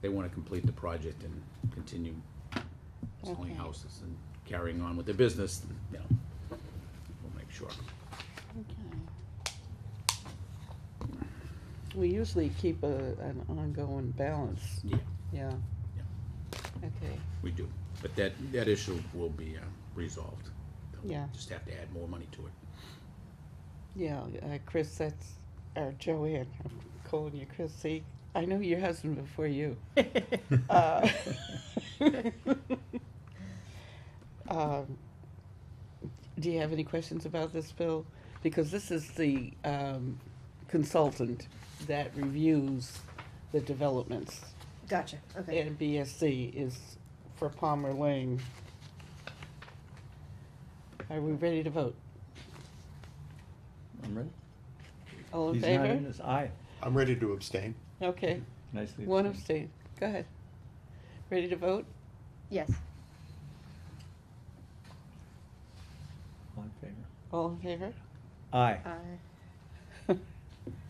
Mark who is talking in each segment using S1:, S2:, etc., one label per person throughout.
S1: they wanna complete the project and continue
S2: Okay.
S1: selling houses and carrying on with their business, you know, we'll make sure.
S2: Okay. We usually keep a, an ongoing balance,
S1: Yeah,
S2: yeah.
S1: Yeah.
S2: Okay,
S1: we do, but that, that issue will be, uh, resolved. They'll
S2: Yeah.
S1: Just have to add more money to it.
S2: yeah, uh, Chris, that's, or Joanne, I'm calling you Chris, see, I knew your husband before you. Uh, um, Do you have any questions about this, Bill? Because this is the um, consultant that reviews the developments.
S3: Gotcha, okay.
S2: And BSC is for Palmer Lane. Are we ready to vote?
S4: I'm ready.
S2: All in
S4: He's not
S2: favor?
S4: in this, aye,
S5: I'm ready to abstain.
S2: Okay,
S4: nicely.
S2: one abstain.
S4: abstained.
S2: Go ahead. Ready to vote?
S3: Yes.
S4: All in favor.
S2: All in favor?
S4: Aye,
S3: Uh,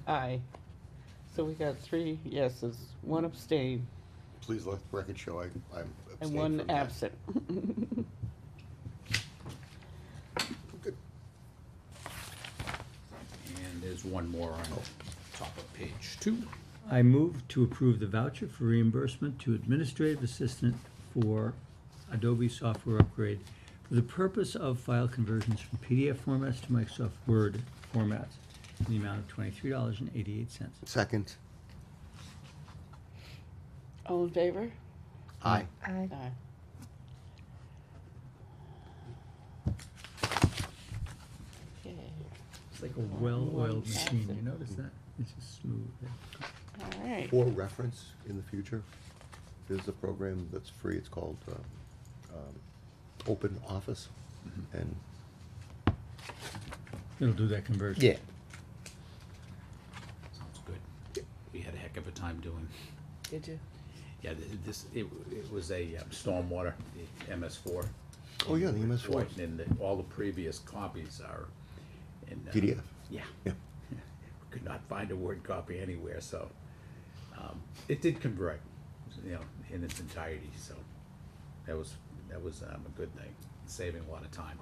S2: Aye. So we got three yeses, one abstain,
S5: Please let the record show I, I'm
S2: and
S5: abstaining
S2: one
S5: from that.
S2: absent.
S1: And there's one more on top of page two.
S4: I move to approve the voucher for reimbursement to administrative assistant for Adobe software upgrade for the purpose of file conversions from PDF formats to Microsoft Word formats in the amount of twenty-three dollars and eighty-eight cents.
S5: Second.
S2: All in favor?
S5: Aye.
S3: aye.
S2: Aye. Okay.
S4: It's like a well-oiled machine,
S2: Excellent.
S4: you notice that? It's just smooth.
S2: All right.
S5: For reference in the future, there's a program that's free. It's called uh, um, Open Office.
S1: Mm-hmm.
S5: And
S4: It'll do that conversion.
S1: Sounds good. We had a heck of a time doing.
S2: Did you?
S1: Yeah, th- this, it, it was a um, stormwater, the MS4.
S5: Oh, yeah, the MS4.
S1: Right, And the- all the previous copies are in. uh,
S5: PDF.
S1: Yeah.
S5: Yeah.
S1: We Could not find a Word copy anywhere, so, um, it did convert, you know, in its entirety, so that was, that was, um, a good thing, saving a lot of time.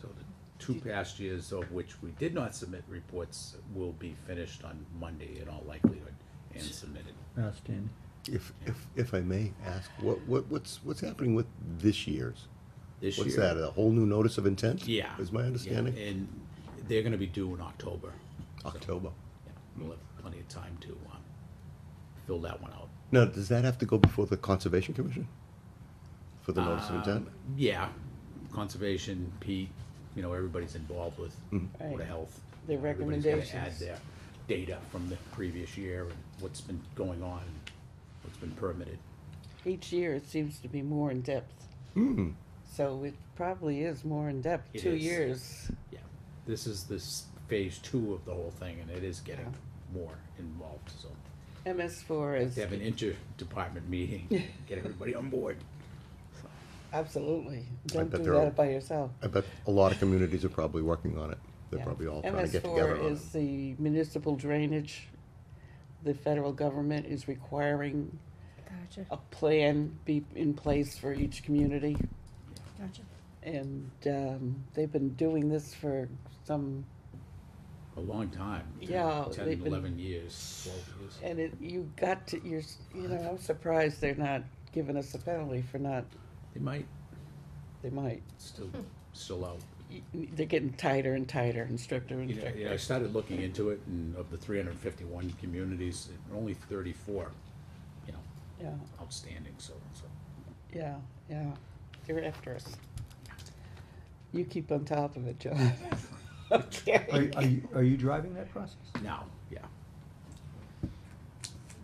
S1: So the two past years of which we did not submit reports will be finished on Monday in all likelihood and submitted.
S4: Outstanding.
S5: If, if, if I may ask, what, what, what's, what's happening with this year's?
S1: This
S5: What's
S1: year-
S5: that, a whole new notice of intent?
S1: Yeah.
S5: Is my
S1: Yeah,
S5: understanding?
S1: And they're gonna be due in October. so,
S5: October.
S1: yeah, We'll have plenty of time to, um, fill that one out.
S5: Now, does that have to go before the Conservation Commission? For the notice of
S1: Um,
S5: intent?
S1: Yeah, conservation, Pete, you know, everybody's involved with Board
S2: Right.
S1: of Health.
S2: Their
S1: Everybody's gotta
S2: recommendations.
S1: Add their data from the previous year and what's been going on, and what's been permitted.
S2: Each year, it seems to be more in depth.
S5: Hmm.
S2: So it probably is more in depth.
S1: It
S2: Two
S1: is.
S2: years.
S1: Yeah, this is this phase two of the whole thing, and it is getting more involved, so.
S2: MS4 is
S1: They have an interdepartment meeting, get everybody on board.
S2: absolutely. Don't
S5: bet
S2: do
S5: they're all-
S2: that by yourself.
S5: I bet a lot of communities are probably working on it. They're
S2: Yeah.
S5: probably all trying to get together
S2: MS4
S5: on it.
S2: is the municipal drainage. The federal government is requiring
S3: Gotcha,
S2: a plan be in place for each community.
S3: gotcha.
S2: And um, they've been doing this for some
S1: A long time. too.
S2: Yeah, they've
S1: Ten,
S2: been-
S1: eleven years, twelve years.
S2: And it, you got to, you're, s- you know, I'm surprised they're not giving us a penalty for not,
S1: They might
S2: they might.
S1: still, still out.
S2: Y- They're getting tighter and tighter and stricter and
S1: You know,
S2: stricter.
S1: yeah, I started looking into it, and of the three hundred and fifty-one communities, only thirty-four, you know,
S2: Yeah,
S1: outstanding, so, so.
S2: yeah, yeah. They're after us. You keep on top of it, John.
S4: Are,
S2: Okay.
S4: are you, are you driving that process?
S1: Now, yeah,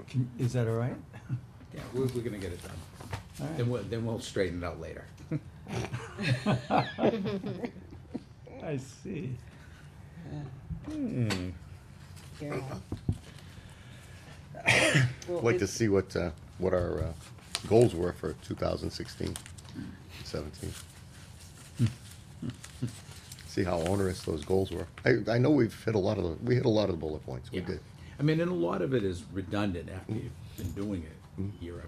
S4: Can, is that all right?
S1: yeah, we're, we're gonna get it done.
S4: All right.
S1: Then we'll, then we'll straighten it out later.
S4: I see.
S2: Yeah. Well,
S5: I'd like to
S2: it's-
S5: see what, uh, what our uh, goals were for 2016, 17. See how onerous those goals were. I, I know we've hit a lot of, the we hit a lot of the bullet points, we
S1: Yeah.
S5: did.
S1: I mean, and a lot of it is redundant after you've been doing it year